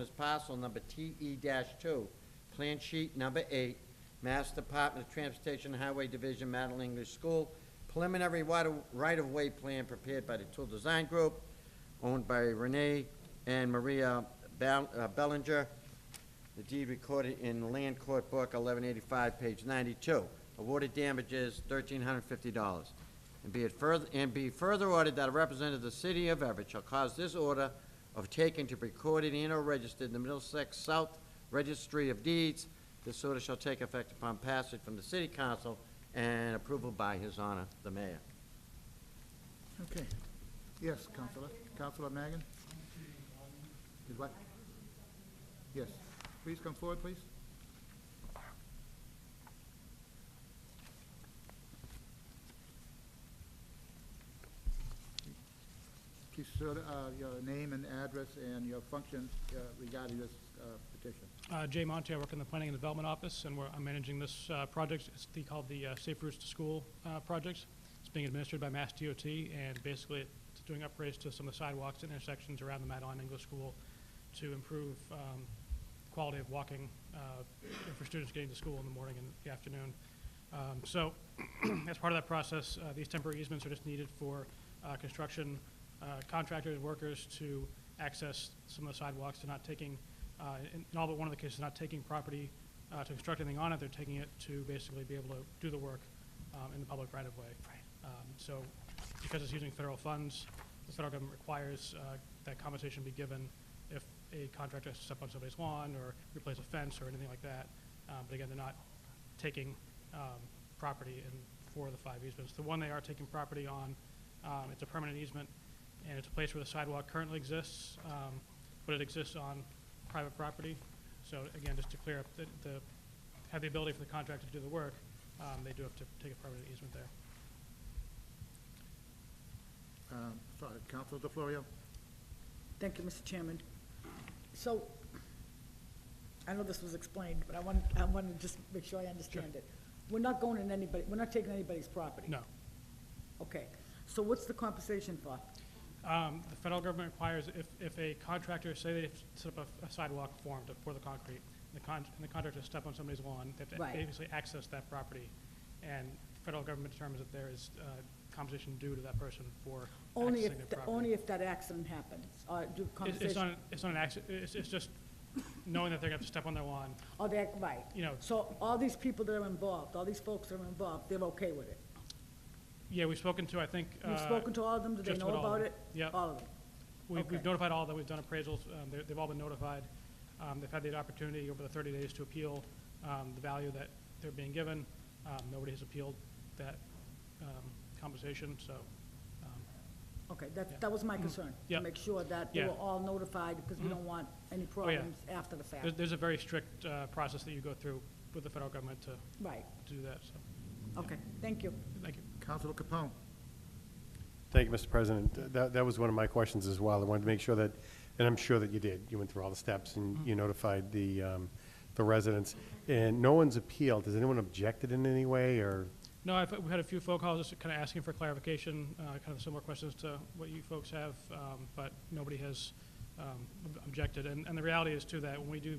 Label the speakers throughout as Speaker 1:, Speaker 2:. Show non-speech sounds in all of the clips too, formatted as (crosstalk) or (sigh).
Speaker 1: is parcel number TE two, plan sheet number eight, Mass Department of Transportation Highway Division, Madeline English School, preliminary water, right-of-way plan prepared by the Tool Design Group, owned by Renee and Maria Bal- uh, Bellinger. The deed recorded in Land Court Book, eleven eighty-five, page ninety-two. Awarded damages, thirteen hundred fifty dollars. And be it further, and be further ordered that a representative of the city of Everett shall cause this order of taking to be recorded and or registered in the Middlesex South Registry of Deeds. This order shall take effect upon passage from the city council and approval by his honor, the mayor.
Speaker 2: Okay. Yes, Counselor. Counselor Magan? Is what? Yes. Please come forward, please. Please sort uh, your name and address and your function uh, regarding this uh, petition.
Speaker 3: Uh, Jay Monte, I work in the Planning and Development Office, and we're, I'm managing this uh, project. It's the, called the uh, Safe Routes to School uh, project. It's being administered by Mass DOT, and basically it's doing upgrades to some of the sidewalks and intersections around the Madeline English School to improve um, quality of walking uh, for students getting to school in the morning and the afternoon. Um, So (clears throat) as part of that process, uh, these temporary easements are just needed for uh, construction uh, contractors, workers to access some of the sidewalks. They're not taking, uh, in in all but one of the cases, not taking property uh, to construct anything on it. They're taking it to basically be able to do the work um, in the public right-of-way. Um, So because it's using federal funds, the federal government requires uh, that compensation be given if a contractor has to step on somebody's lawn or replace a fence or anything like that. Um, But again, they're not taking um, property in four of the five easements. The one they are taking property on, um, it's a permanent easement, and it's a place where the sidewalk currently exists, um, but it exists on private property. So again, just to clear up, the- the, have the ability for the contractor to do the work, um, they do have to take a permanent easement there.
Speaker 2: Um, Sorry, Counselor DeFlorio?
Speaker 4: Thank you, Mr. Chairman. So, I know this was explained, but I want, I want to just make sure I understand it. We're not going in anybody, we're not taking anybody's property?
Speaker 3: No.
Speaker 4: Okay, so what's the compensation for?
Speaker 3: Um, The federal government requires, if, if a contractor, say they set up a- a sidewalk form to pour the concrete, and the con, and the contractor step on somebody's lawn, they have
Speaker 4: Right.
Speaker 3: to basically access that property, and the federal government determines that there is uh, compensation due to that person for
Speaker 4: Only
Speaker 3: accessing
Speaker 4: if,
Speaker 3: their
Speaker 4: the- only
Speaker 3: property.
Speaker 4: if that accident happens, or do
Speaker 3: It's- It's
Speaker 4: compensation?
Speaker 3: not, it's not an accident, it's, it's just knowing that they're gonna have to step on their lawn,
Speaker 4: Or that, right.
Speaker 3: you know.
Speaker 4: So all these people that are involved, all these folks that are involved, they're okay with it?
Speaker 3: Yeah, we've spoken to, I think.
Speaker 4: You've
Speaker 3: uh,
Speaker 4: spoken to all of them, do they
Speaker 3: just
Speaker 4: know
Speaker 3: about all of
Speaker 4: about
Speaker 3: them.
Speaker 4: it?
Speaker 3: Yep.
Speaker 4: All of them?
Speaker 3: We've we've
Speaker 4: Okay.
Speaker 3: notified all that, we've done appraisals, um, they're- they've all been notified. Um, They've had the opportunity over the 30 days to appeal um, the value that they're being given. Um, Nobody has appealed that um, compensation, so, um,
Speaker 4: Okay, that,
Speaker 3: Yeah.
Speaker 4: that was my concern.
Speaker 3: Yeah.
Speaker 4: To make sure that they
Speaker 3: Yeah.
Speaker 4: were all notified, because we don't want any problems after the
Speaker 3: there-
Speaker 4: fact.
Speaker 3: there's a very strict uh, process that you go through with the federal government to
Speaker 4: Right,
Speaker 3: to do that, so,
Speaker 4: okay, thank you.
Speaker 3: thank you.
Speaker 2: Counselor Capone?
Speaker 5: Thank you, Mr. President. Th- That, that was one of my questions as well. I wanted to make sure that, and I'm sure that you did, you went through all the steps and
Speaker 3: Mm-hmm.
Speaker 5: you notified the, um, the residents. And no one's appealed. Has anyone objected in any way or?
Speaker 3: No, I've, we had a few phone calls, just kind of asking for clarification, uh, kind of similar questions to what you folks have, um, but nobody has, um, ob- objected. And, and the reality is too that when we do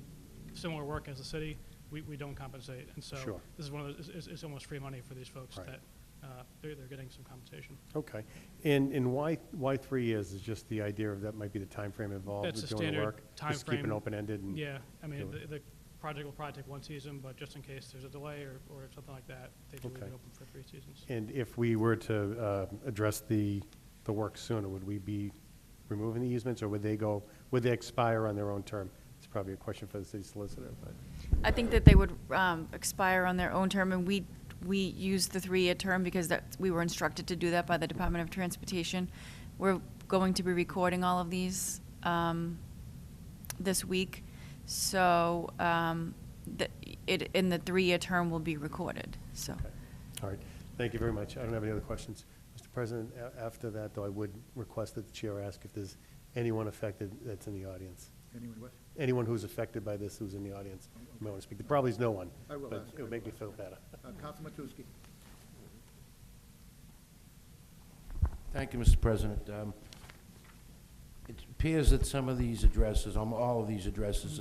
Speaker 3: similar work as a city, we, we don't compensate. And so
Speaker 5: Sure.
Speaker 3: this is one of those, it's, it's almost free money for these folks
Speaker 5: Right.
Speaker 3: that, uh, they're, they're getting some compensation.
Speaker 5: Okay. And, and why, why three years is just the idea of that might be the timeframe involved
Speaker 3: That's
Speaker 5: with
Speaker 3: the
Speaker 5: doing the
Speaker 3: standard
Speaker 5: work? Just keep it
Speaker 3: timeframe.
Speaker 5: open-ended and?
Speaker 3: Yeah, I mean,
Speaker 5: Do it.
Speaker 3: the, the project will probably take one season, but just in case there's a delay or, or something like that, they do leave it
Speaker 5: Okay.
Speaker 3: open for three seasons.
Speaker 5: And if we were to, uh, address the, the work sooner, would we be removing the easements or would they go, would they expire on their own term? It's probably a question for the city solicitor, but.
Speaker 6: I think that they would um, expire on their own term, and we, we used the three-year term because that, we were instructed to do that by the Department of Transportation. We're going to be recording all of these um, this week, so um, the- it, in the three-year term will be recorded, so.
Speaker 5: Okay. All right, thank you very much. I don't have any other questions. Mr. President, a- after that, though, I would request that the chair ask if there's anyone affected that's in the audience.
Speaker 2: Anyone what?
Speaker 5: Anyone who's affected by this who's in the audience, you may want to speak. There probably is no one.
Speaker 2: I will ask.
Speaker 5: But it would make me feel better.
Speaker 2: Uh, Counselor Matusky?
Speaker 7: Thank you, Mr. President. Um, it appears that some of these addresses, um, all of these addresses,